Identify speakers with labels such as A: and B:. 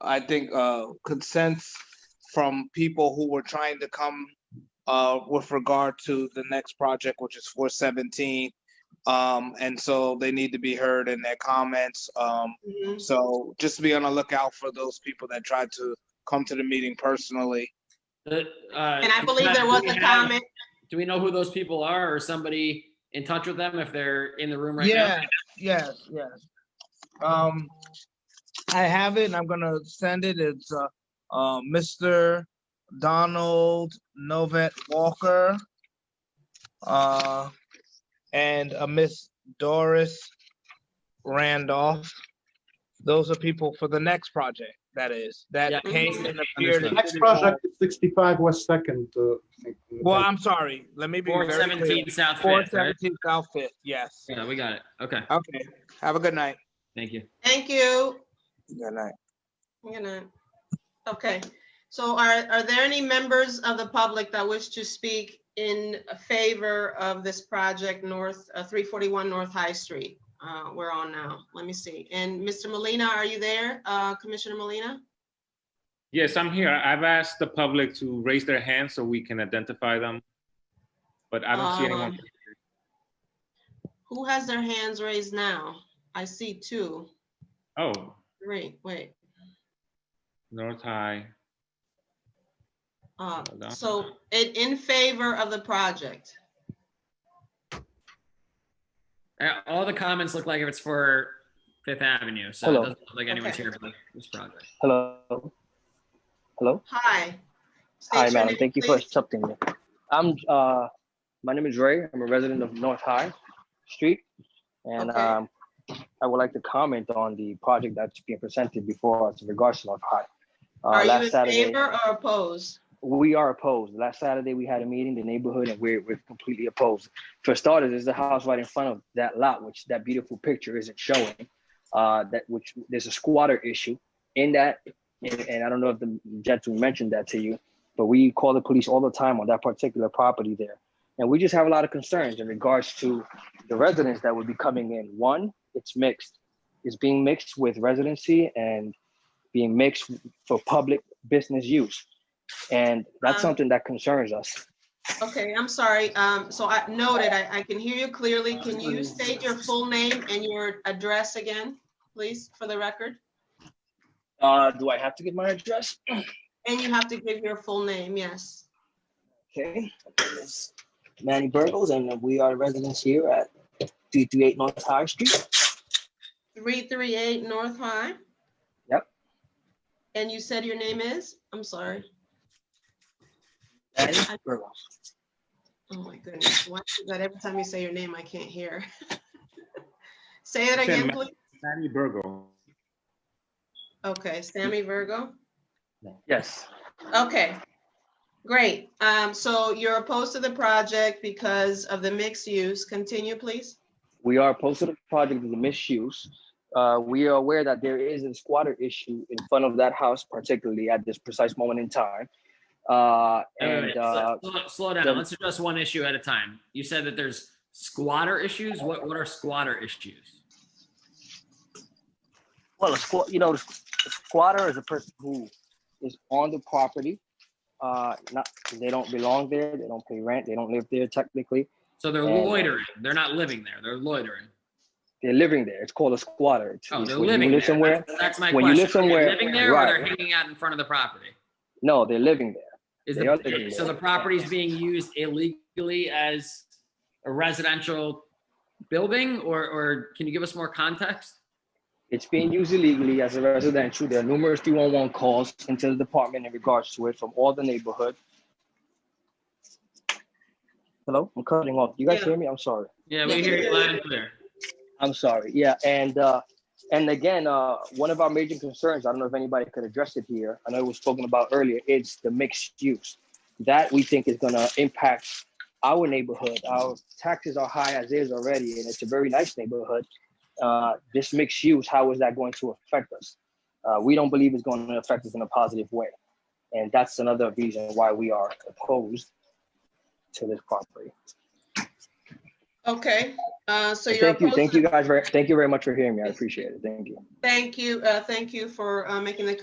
A: I think, uh, consents from people who were trying to come, uh, with regard to the next project, which is four seventeen. Um, and so they need to be heard in their comments. Um,
B: Mm-hmm.
A: so just be on the lookout for those people that tried to come to the meeting personally.
C: And uh,
D: And I believe there was a comment.
C: Do we know who those people are or somebody in touch with them if they're in the room right now?
A: Yeah, yes, yes. Um, I have it and I'm gonna send it. It's, uh, uh, Mr. Donald Novet Walker. Uh, and uh Miss Doris Randolph. Those are people for the next project, that is,
C: Yeah.
A: that came and appeared.
C: Understood.
A: in
E: Next
A: City
E: project
A: Hall.
E: is 65 West Second. uh, I think.
A: Well, I'm sorry, let me be
C: Four
A: very clear.
C: seventeen South
A: Four
C: Fifth, right?
A: seventeen South Fifth, yes.
C: Yeah, we got it. Okay,
A: Okay, have a good night.
C: thank you.
D: Thank you.
A: Good night.
D: I'm gonna, okay. So are, are there any members of the public that wish to speak in favor of this project, North, uh, 341 North High Street? Uh, We're on now. Let me see. And Mr. Molina, are you there? Uh, Commissioner Molina?
B: Yes, I'm here. I've asked the public to raise their hands so we can identify them. But I don't see
D: Um,
B: anyone.
D: Who has their hands raised now? I see two,
B: Oh,
D: three, wait.
B: North High.
D: Uh,
B: Hold on.
D: So it in favor of the project.
C: Uh, All the comments look like if it's for Fifth Avenue, so it
F: Hello.
C: doesn't look like anyone's
D: Okay.
C: here for this project.
F: Hello. Hello.
D: Hi. State
F: Hi,
D: your
F: madam.
D: name,
F: Thank you for
D: please.
F: accepting me. I'm uh, my name is Ray. I'm a resident of North High Street, and
D: Okay.
F: um, I would like to comment on the project that's being presented before us in regards to North High. Uh,
D: Are
F: last
D: you in
F: Saturday,
D: favor or opposed?
F: we are opposed. Last Saturday, we had a meeting, the neighborhood, and we're, we're completely opposed. For starters, there's a house right in front of that lot, which that beautiful picture isn't showing. Uh, that which there's a squatter issue in that, and, and I don't know if the gentleman mentioned that to you, but we call the police all the time on that particular property there, and we just have a lot of concerns in regards to the residents that would be coming in. One, it's mixed. It's being mixed with residency and being mixed for public business use. And that's
D: Um,
F: something that concerns us.
D: Okay, I'm sorry. Um, so I noted, I, I can hear you clearly. Can you state your full name and your address again, please, for the record?
F: Uh, do I have to give my address?
D: And you have to give your full name, yes.
F: Okay. It's Manny Burgos, and we are residents here at 338 North High Street.
D: Three three eight North High?
F: Yep.
D: And you said your name is? I'm sorry.
F: Manny Burgos.
D: Oh, my goodness. Why is that every time you say your name, I can't hear? Say it again,
B: Sam-
D: please.
B: Sammy Burgo.
D: Okay, Sammy Virgo.
F: Yes.
D: Okay, great. Um, so you're opposed to the project because of the mixed use. Continue, please.
F: We are opposed to the project of the misuse. Uh, we are aware that there is a squatter issue in front of that house, particularly at this precise moment in time. Uh,
C: Wait, wait,
F: and
C: wait.
F: uh,
C: Slow- slow- Slow down.
F: the-
C: Let's address one issue at a time. You said that there's squatter issues. What, what are squatter issues?
F: Well, a squat, you know, the squ- the squatter is a person who is on the property. Uh, not, they don't belong there, they don't pay rent, they don't live there technically,
C: So they're
F: Uh,
C: loitering. They're not living there. They're loitering.
F: they're living there, it's called a squatter. It's-
C: Oh,
F: it's
C: they're
F: when you
C: living
F: live
C: there.
F: Somewhere,
C: That's- That's my
F: when you
C: question.
F: live somewhere-
C: They're living there or
F: right.
C: they're hanging out in front of the property?
F: no, they're living there.
C: Is
F: They are
C: the,
F: living
C: so the
F: there.
C: property's being used illegally as a residential building or, or can you give us more context?
F: It's being used illegally as a residential, there are numerous 311 calls into the department in regards to it from all the neighborhood. Hello, I'm cutting off, you guys
D: Yeah.
F: hear me? I'm sorry.
C: Yeah, we hear you loud and clear.
F: I'm sorry. Yeah, and uh, and again, uh, one of our major concerns, I don't know if anybody could address it here. I know it was spoken about earlier. It's the mixed use that we think is going to impact our neighborhood. Our taxes are high as is already, and it's a very nice neighborhood. Uh, this mixed use, how is that going to affect us? Uh, we don't believe it's going to affect us in a positive way, and that's another reason why we are opposed to this property.
D: Okay, uh, so you're
F: Thank you,
D: opposed.
F: thank
D: to-
F: you guys, very, thank you very much for hearing me. I appreciate it. Thank you.
D: Thank you, uh, thank you for, uh, making the